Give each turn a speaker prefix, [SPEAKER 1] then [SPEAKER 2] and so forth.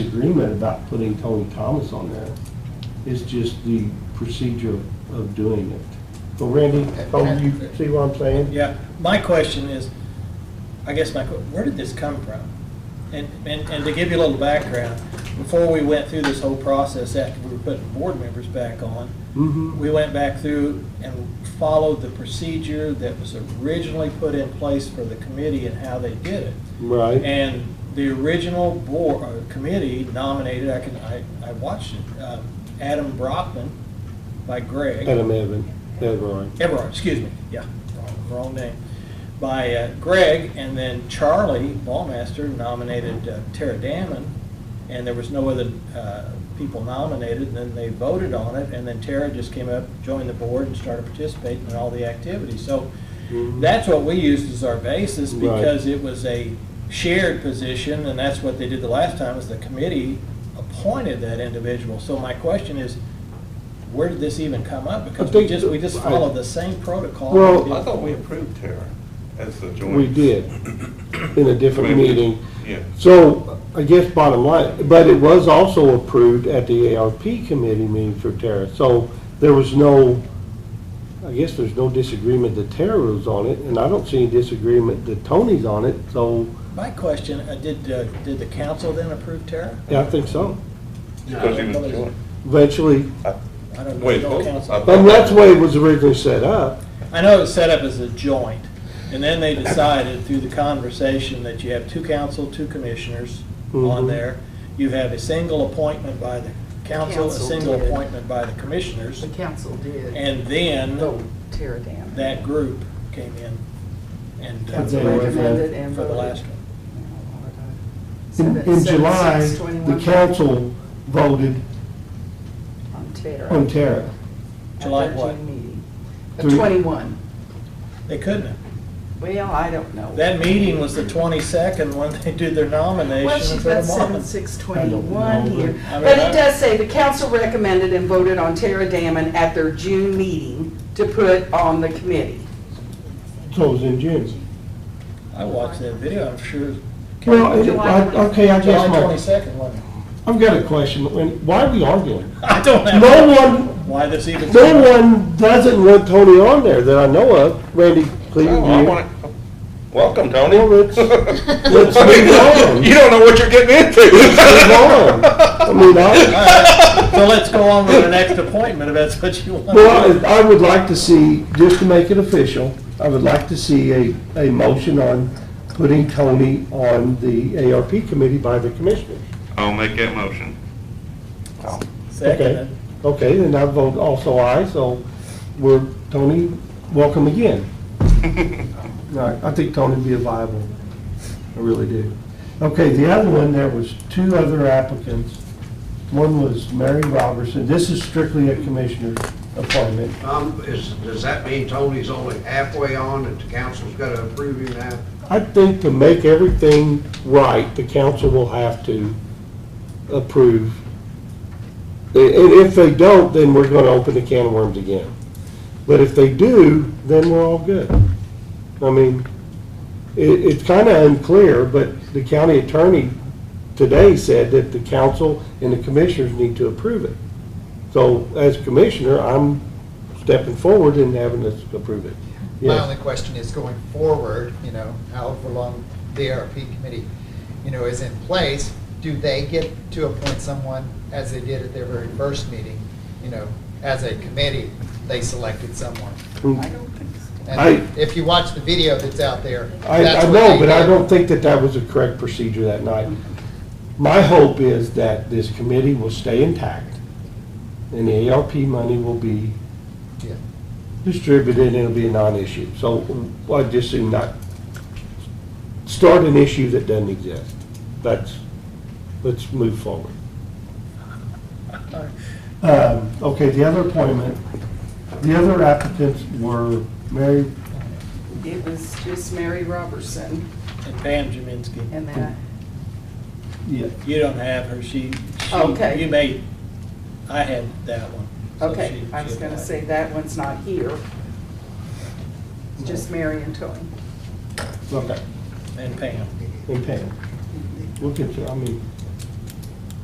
[SPEAKER 1] disagreement about putting Tony Thomas on there. It's just the procedure of doing it. So Randy, oh, you see what I'm saying?
[SPEAKER 2] Yeah, my question is, I guess my, que- where did this come from? And, and, and to give you a little background, before we went through this whole process, after we were putting board members back on,
[SPEAKER 1] Mm-hmm.
[SPEAKER 2] we went back through and followed the procedure that was originally put in place for the committee and how they did it.
[SPEAKER 1] Right.
[SPEAKER 2] And the original board, uh, committee nominated, I can, I, I watched it, um, Adam Brockman by Greg.
[SPEAKER 1] Adam Evan, that's right.
[SPEAKER 2] Everard, excuse me, yeah, wrong- wrong name, by uh, Greg, and then Charlie Ballmaster nominated uh, Tara Damon, and there was no other uh, people nominated, and then they voted on it, and then Tara just came up, joined the board, and started participating in all the activities. So
[SPEAKER 1] Mhm.
[SPEAKER 2] that's what we used as our basis,
[SPEAKER 1] Right.
[SPEAKER 2] because it was a shared position, and that's what they did the last time, is the committee appointed that individual. So my question is, where did this even come up? Because we
[SPEAKER 1] think
[SPEAKER 2] just, we just
[SPEAKER 1] that-
[SPEAKER 2] followed the same protocol.
[SPEAKER 1] Well,
[SPEAKER 2] we
[SPEAKER 3] I
[SPEAKER 2] did.
[SPEAKER 3] thought we approved Tara as the joint.
[SPEAKER 1] We did, in a different meeting.
[SPEAKER 3] Yeah,
[SPEAKER 1] So, I guess bottom line, but it was also approved at the ARP committee meeting for Tara. So there was no, I guess there's no disagreement that Tara was on it, and I don't see any disagreement that Tony's on it, so,
[SPEAKER 2] My question, uh, did, uh, did the council then approve Tara?
[SPEAKER 1] yeah, I think so.
[SPEAKER 3] because he was joint.
[SPEAKER 1] Eventually,
[SPEAKER 2] I don't
[SPEAKER 3] Wait,
[SPEAKER 2] know,
[SPEAKER 3] what?
[SPEAKER 2] council.
[SPEAKER 1] and that's the way it was originally set up.
[SPEAKER 2] I know it was set up as a joint, and then they decided through the conversation that you have two council, two commissioners on
[SPEAKER 1] Mhm.
[SPEAKER 2] there. You have a single appointment by the council, a
[SPEAKER 4] Council
[SPEAKER 2] single
[SPEAKER 4] did.
[SPEAKER 2] appointment by the commissioners,
[SPEAKER 4] The council did
[SPEAKER 2] and then
[SPEAKER 4] vote tear it down.
[SPEAKER 2] that group came in and. uh,
[SPEAKER 4] Council
[SPEAKER 1] They were
[SPEAKER 4] recommended and
[SPEAKER 2] For the last
[SPEAKER 4] voted.
[SPEAKER 2] one.
[SPEAKER 4] So
[SPEAKER 1] In,
[SPEAKER 4] that
[SPEAKER 1] in
[SPEAKER 4] seven,
[SPEAKER 1] July,
[SPEAKER 4] six,
[SPEAKER 1] the
[SPEAKER 4] 21
[SPEAKER 1] council voted
[SPEAKER 4] On tear.
[SPEAKER 1] on Tara.
[SPEAKER 4] At
[SPEAKER 2] July
[SPEAKER 4] their
[SPEAKER 2] what?
[SPEAKER 4] June meeting. Of
[SPEAKER 1] Oh, Three.
[SPEAKER 4] Twenty-one.
[SPEAKER 2] They couldn't have.
[SPEAKER 4] Well, I don't know.
[SPEAKER 2] That meeting was the twenty-second when they did their
[SPEAKER 4] Well,
[SPEAKER 2] nomination
[SPEAKER 4] she's
[SPEAKER 2] for the
[SPEAKER 4] got seven,
[SPEAKER 2] moment.
[SPEAKER 4] six,
[SPEAKER 1] I
[SPEAKER 4] twenty-one
[SPEAKER 1] don't know,
[SPEAKER 4] here.
[SPEAKER 1] but-
[SPEAKER 2] I mean,
[SPEAKER 4] But
[SPEAKER 2] I-
[SPEAKER 4] it does say the council recommended and voted on Tara Damon at their June meeting to put on the committee.
[SPEAKER 1] So it was in June.
[SPEAKER 2] I watched that video, I'm sure.
[SPEAKER 1] Well, it- I- okay, I guess
[SPEAKER 2] July
[SPEAKER 1] my,
[SPEAKER 2] twenty-second, wasn't it?
[SPEAKER 1] I've got a question. When- Why are we arguing?
[SPEAKER 2] I don't have.
[SPEAKER 1] No one-
[SPEAKER 2] Why this even.
[SPEAKER 1] No one doesn't want Tony on there that I know of. Randy, please,
[SPEAKER 3] Oh, I
[SPEAKER 1] you.
[SPEAKER 3] want it. Welcome, Tony.
[SPEAKER 1] Well, let's, let's
[SPEAKER 3] You
[SPEAKER 1] move
[SPEAKER 3] don't know what you're getting into.
[SPEAKER 1] on. Move on. I mean, I,
[SPEAKER 2] So let's go on with the next appointment, if that's what you want.
[SPEAKER 1] well, I I would like to see, just to make it official, I would like to see a, a motion on putting Tony on the ARP committee by the commissioners.
[SPEAKER 3] I'll make that motion.
[SPEAKER 2] Second, it.
[SPEAKER 1] Okay, then I vote also aye, so we're, Tony, welcome again. All right, I think Tony'd be a viable, I really do. Okay, the other one, there was two other applicants. One was Mary Robertson, this is strictly a commissioner appointment.
[SPEAKER 5] Um, is, does that mean Tony's only halfway on and the council's gotta approve him now?
[SPEAKER 1] I think to make everything right, the council will have to approve. I- i- if they don't, then we're gonna open the can of worms again. But if they do, then we're all good. I mean, it, it's kinda unclear, but the county attorney today said that the council and the commissioners need to approve it. So as commissioner, I'm stepping forward and having us approve it.
[SPEAKER 6] My
[SPEAKER 1] Yes.
[SPEAKER 6] only question is going forward, you know, however long the ARP committee, you know, is in place, do they get to appoint someone as they did at their very first meeting? You know, as a committee, they selected someone.
[SPEAKER 4] I don't think so.
[SPEAKER 6] And
[SPEAKER 1] I-
[SPEAKER 6] if you watch the video that's out there,
[SPEAKER 1] I,
[SPEAKER 6] that's
[SPEAKER 1] I
[SPEAKER 6] what
[SPEAKER 1] know,
[SPEAKER 6] they
[SPEAKER 1] but I
[SPEAKER 6] did.
[SPEAKER 1] don't think that that was the correct procedure that night. My hope is that this committee will stay intact, and the ARP money will be
[SPEAKER 6] Yeah.
[SPEAKER 1] distributed, and it'll be a non-issue. So I just do not start an issue that doesn't exist. That's, let's move forward. Um, Okay, the other appointment, the other applicants were Mary
[SPEAKER 4] It was just Mary Robertson
[SPEAKER 2] and Pam Jaminski,
[SPEAKER 4] and that.
[SPEAKER 2] you don't have her, she, she,
[SPEAKER 4] Okay.
[SPEAKER 2] you may, I had that one. so
[SPEAKER 4] Okay,
[SPEAKER 2] she-
[SPEAKER 4] I was
[SPEAKER 2] she
[SPEAKER 4] gonna
[SPEAKER 2] applied.
[SPEAKER 4] say that one's not here. It's just Mary and Tony.
[SPEAKER 1] Okay.
[SPEAKER 2] And Pam.
[SPEAKER 1] and Pam. Look at, you, I mean,